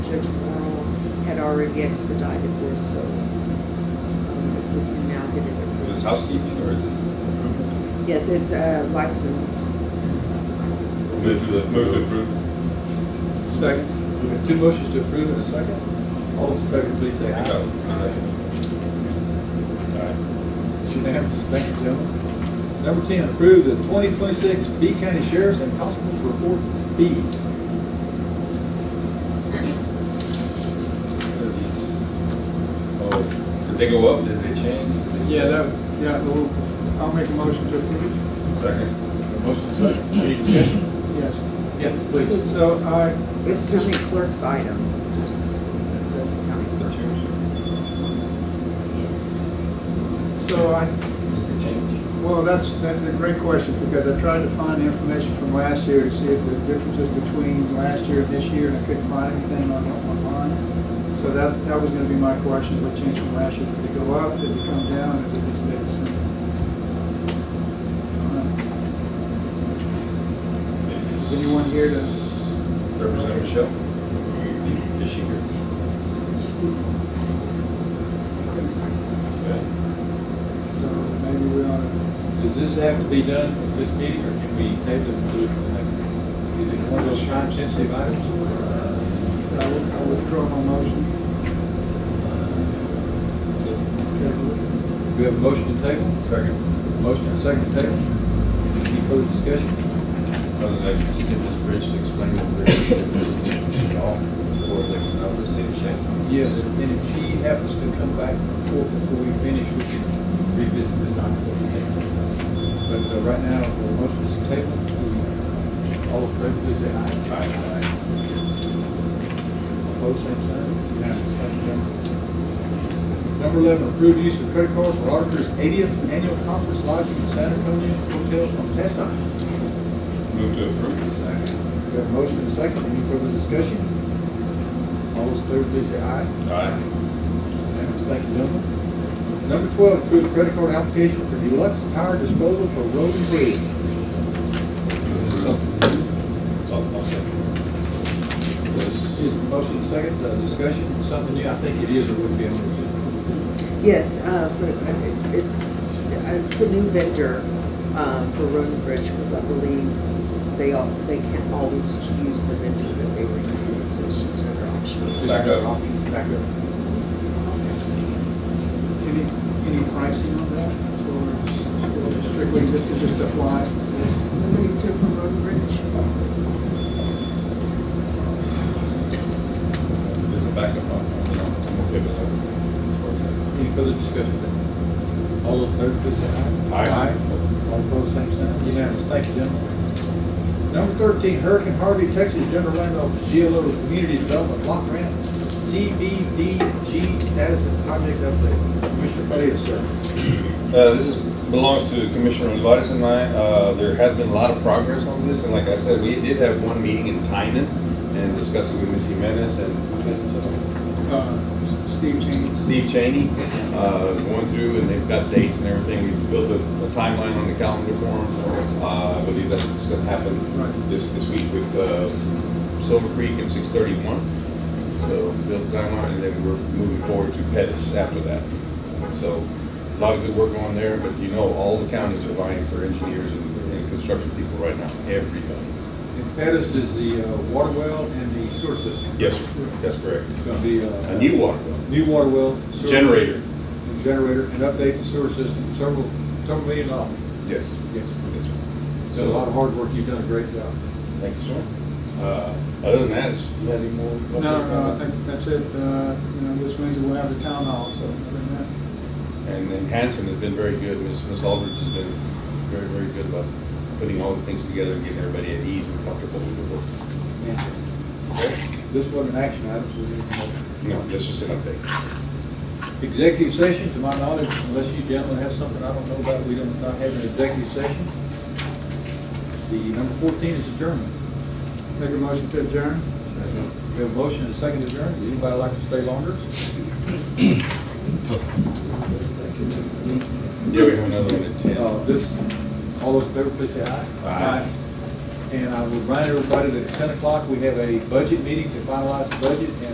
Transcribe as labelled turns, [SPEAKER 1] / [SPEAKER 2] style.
[SPEAKER 1] already expedited this, so um, if we can now get it
[SPEAKER 2] Is this
[SPEAKER 1] approved.
[SPEAKER 2] housekeeping or is it improvement?
[SPEAKER 1] Yes, it's a license.
[SPEAKER 2] Move to, move to approve.
[SPEAKER 3] Second. We've got two motions to approve and a second. All those in favor, please say
[SPEAKER 2] I
[SPEAKER 3] aye.
[SPEAKER 2] got it. Alright.
[SPEAKER 3] It's unanimous. Thank you, gentlemen. Number ten, approve the twenty twenty-six B County Sheriff's and Constable's Report fees.
[SPEAKER 2] Oh, did they go up? Did they change?
[SPEAKER 4] Yeah, that, yeah, we'll- I'll make a motion to approve.
[SPEAKER 2] Second.
[SPEAKER 3] Motion second. Any discussion?
[SPEAKER 4] Yes.
[SPEAKER 3] Yes, please.
[SPEAKER 4] So I,
[SPEAKER 1] It's county clerk's item. It says county
[SPEAKER 2] The
[SPEAKER 1] clerk.
[SPEAKER 2] change.
[SPEAKER 4] so I,
[SPEAKER 2] The change.
[SPEAKER 4] well, that's, that's a great question because I tried to find the information from last year to see if the differences between last year and this year and I couldn't find anything on online. So that, that was gonna be my question, what changed from last year? Did they go up, did they come down, or did they stay the same? Is anyone here to,
[SPEAKER 2] Representative Michelle? Is she here? Okay.
[SPEAKER 4] so maybe we ought to
[SPEAKER 3] Does this have to be done at this meeting or can we table it to the next? meeting? Is it one of those time sensitive items?
[SPEAKER 4] I would, I would draw my motion.
[SPEAKER 3] We have a motion to table?
[SPEAKER 2] Second.
[SPEAKER 3] Motion and second to table. Any further discussion?
[SPEAKER 2] Other than that, just get this bridge to explain what they're doing. All, or they can know the same thing.
[SPEAKER 3] Yes, and if she happens to come back before, before we finish, we can revisit this item. for the table. But uh, right now, the motion is to table. We- All in favor, please say aye. Aye. Opposed, same sign. Unanimous. Thank you, gentlemen. Number eleven, approved use of credit cards for auditor's eightieth annual conference lodging in San Antonio Hotel Contessa.
[SPEAKER 2] Move to approve. Second.
[SPEAKER 3] We have a motion and a second. Any further discussion? All those in favor, please say aye.
[SPEAKER 2] Aye.
[SPEAKER 3] Unanimous. Thank you, gentlemen. Number twelve, approve the credit card application for deluxe tire disposal for road and bridge.
[SPEAKER 2] This is something. I'll, I'll second. Yes.
[SPEAKER 3] Is the motion and second, uh, discussion, something new? I think it is or would be on the.
[SPEAKER 1] Yes, uh, for- uh, it's, it's a new vendor um, for Roden Bridge because I believe they all, they can't always use the vendor that they were using, so it's just another option.
[SPEAKER 2] Back up.
[SPEAKER 3] Back up.
[SPEAKER 4] Any, any pricing on that, or is- or strictly, this is just a fly?
[SPEAKER 1] Nobody's here from Roden Bridge?
[SPEAKER 2] There's a backup on, you know, I'm okay with that.
[SPEAKER 3] Any further discussion? All those in favor, please say aye.
[SPEAKER 2] Aye.
[SPEAKER 3] All opposed, same sign. Unanimous. Thank you, gentlemen. Number thirteen, Hurricane Harvey, Texas General Land Office, GLO Community Development Block Grant, CBDG status and project update. Commissioner Palia, sir.
[SPEAKER 2] Uh, this is, belongs to Commissioner Olivares and I. Uh, there has been a lot of progress on this, and like I said, we did have one meeting in Tynan and discussed it with Ms. Jimenez and
[SPEAKER 4] Uh, Steve James.
[SPEAKER 2] Steve Cheney, uh, going through, and they've got dates and everything. We built a a timeline on the calendar for them. Uh, I believe that's gonna happen
[SPEAKER 4] Right.
[SPEAKER 2] this, this week with, uh, Silver Creek and six thirty-one. So built the timeline, and then we're moving forward to Pettus after that. So a lot of good work going there, but you know, all the counties are vying for engineers and and construction people right now, everybody.
[SPEAKER 3] And Pettus is the uh, water well and the sewer system.
[SPEAKER 2] Yes, sir. that's correct.
[SPEAKER 3] It's gonna be uh,
[SPEAKER 2] A new water well,
[SPEAKER 3] New water well. sewer-
[SPEAKER 2] generator.
[SPEAKER 3] and Generator, and update the sewer system, several, several million dollars.
[SPEAKER 2] Yes.
[SPEAKER 3] Yes.
[SPEAKER 2] Yes, sir.
[SPEAKER 3] It's been a lot of hard work. You've done a great job.
[SPEAKER 2] Thank you, sir. Uh, Other than that, is you have any more?
[SPEAKER 4] No, no, I think that's it, uh, you know, this Wednesday we'll have the town hall, so, other than that.
[SPEAKER 2] And then Hanson has been very good, Ms. Ms. Aldridge has been very, very good about putting all the things together and getting everybody at ease and comfortable with the work. Okay?
[SPEAKER 3] This wasn't an action item, so we need a motion.
[SPEAKER 2] No, that's just an update.
[SPEAKER 3] Executive session, to my knowledge, unless you gentlemen have something I don't know about, we don't, not have an executive session. The number fourteen is adjournment.
[SPEAKER 4] Make a motion to adjourn?
[SPEAKER 3] We have a motion and a second adjourned. Would anybody like to stay longer?
[SPEAKER 2] Yeah, we have another one at ten.
[SPEAKER 3] Uh, this, all those in favor, please say aye.
[SPEAKER 2] Aye.
[SPEAKER 3] And I will remind everybody that at ten o'clock, we have a budget meeting to finalize the budget and